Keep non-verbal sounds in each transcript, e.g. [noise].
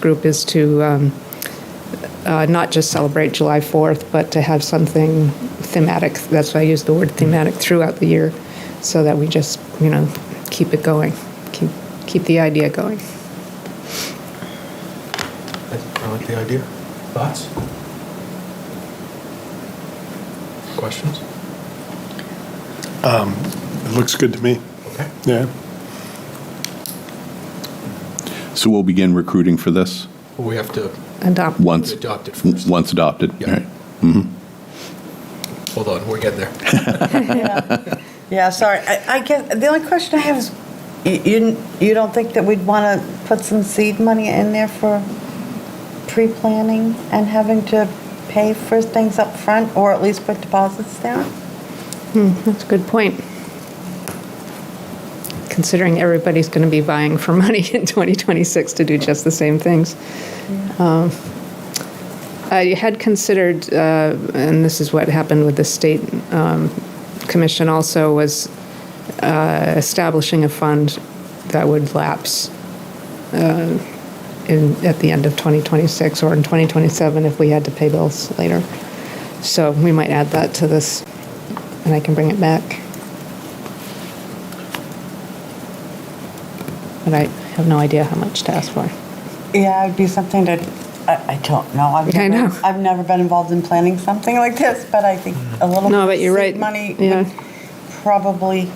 group is to um, uh, not just celebrate July 4th, but to have something thematic. That's why I use the word thematic throughout the year, so that we just, you know, keep it going, keep, keep the idea going. I like the idea. Thoughts? Questions? It looks good to me, Okay. yeah. So we'll begin recruiting for this Well, we have to Adopt. once, adopt it first. once adopted. Yeah. right? Hold on, we're getting there. Yeah, sorry. I, I guess, the only question I have is, you- you, you don't think that we'd want to put some seed money in there for pre-planning and having to pay for things up front, or at least put deposits down? That's a good point. Considering everybody's going to be vying for money in 2026 to do just the same things. Um, I had considered, uh, and this is what happened with the state um, commission also, was uh, establishing a fund that would lapse uh, in, at the end of 2026 or in 2027 if we had to pay bills later. So we might add that to this and I can bring it back. But I have no idea how much to ask for. Yeah, it'd be something that, I, I don't know. I've I never- know. I've never been involved in planning something like this, but I think a little. No, bit but of you're seed right. Money Yeah. would probably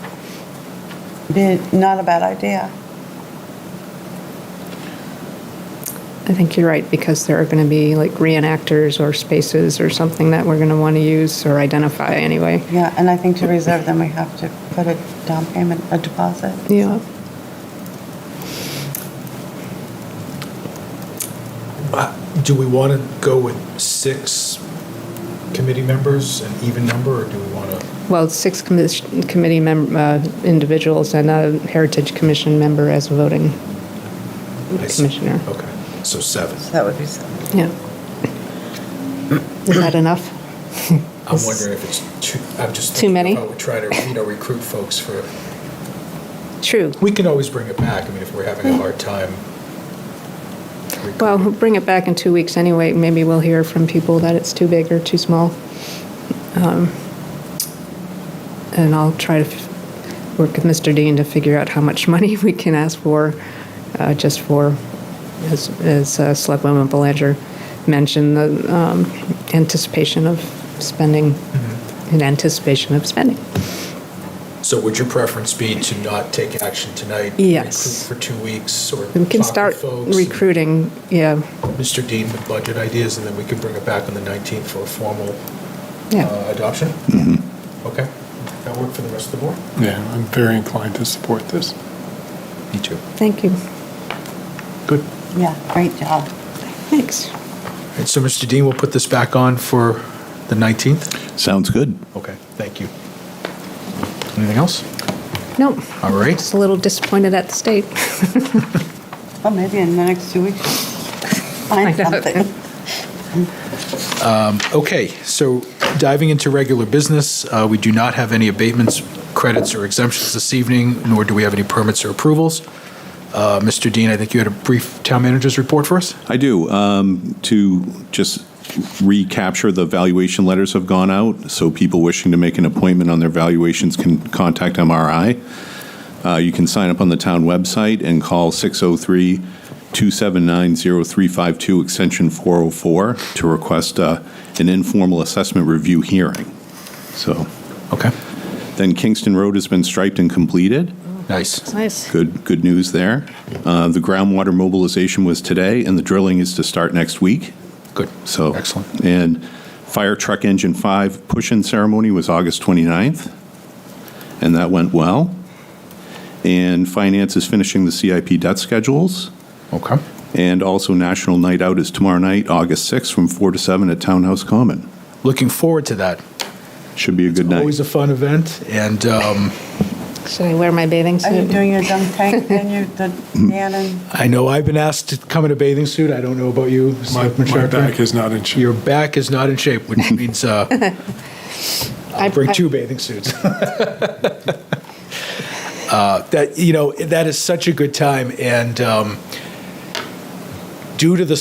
be not a bad idea. I think you're right, because there are going to be like reenactors or spaces or something that we're going to want to use or identify anyway. Yeah, and I think to reserve them, we have to put a down payment, a deposit. Yeah. Uh, Do we want to go with six committee members, an even number, or do we want to? Well, six commis- committee mem- uh, individuals and a Heritage Commission member as a voting commissioner. Okay, so seven. So that would be something. Yeah. Is that enough? I'm wondering if it's too, I'm just. Too thinking many? if I would try to, you know, recruit folks for, True. we can always bring it back. I mean, if we're having a hard time. Well, we'll recruiting. bring it back in two weeks anyway. Maybe we'll hear from people that it's too big or too small. Um, And I'll try to f- work with Mr. Dean to figure out how much [laughs] money we can ask for, uh, just for, as, as uh, Selectwoman Belanger mentioned, the um, anticipation of spending, Mm-hmm. in anticipation of spending. So would your preference be to not take action tonight? Yes. Recruit for two weeks or? We talk can with start folks and- recruiting, yeah, Mr. Dean with budget ideas, and then we can bring it back on the 19th for a formal Yeah. uh, adoption? Okay. That work for the rest of the board? Yeah, I'm very inclined to support this. Me too. thank you, Good. Yeah, great job. thanks. And so, Mr. Dean, we'll put this back on for the 19th? Sounds good. Okay, thank you. Anything else? No, All right. just a little disappointed at the state. Well, maybe in the next [laughs] two weeks, find Find out. something. [laughs] Okay, so diving into regular business, uh, we do not have any abatements, credits, or exemptions this evening, nor do we have any permits or approvals. Uh, Mr. Dean, I think you had a brief town manager's report for us? I do. Um, To just recapture, the valuation letters have gone out, so people wishing to make an appointment on their valuations can contact MRI. Uh, You can sign up on the town website and call 603-279-0352, extension 404, to request uh, an informal assessment review hearing. So Okay, then Kingston Road has been striped and completed. nice. Nice. Good, good news there. Uh, The groundwater mobilization was today, and the drilling is to start next week, Good. so. Excellent. And fire truck engine five push-in ceremony was August 29th, and that went well. And finance is finishing the CIP debt schedules, Okay. and also National Night Out is tomorrow night, August 6th, from 4 to 7 at Townhouse Common. Looking forward to that. Should be a good night. Always a fun event, and um, Should I wear my bathing Are you suit? doing your dunk tank and your, the man and? I know I've been asked to come in a bathing suit. I don't know about you, My, Selectman my Sharkey. back is not in shape. Your back is not in [laughs] shape, which means uh, I- I'll bring I- two bathing suits. [laughs] uh, that you know that is such a good time, and um, due to the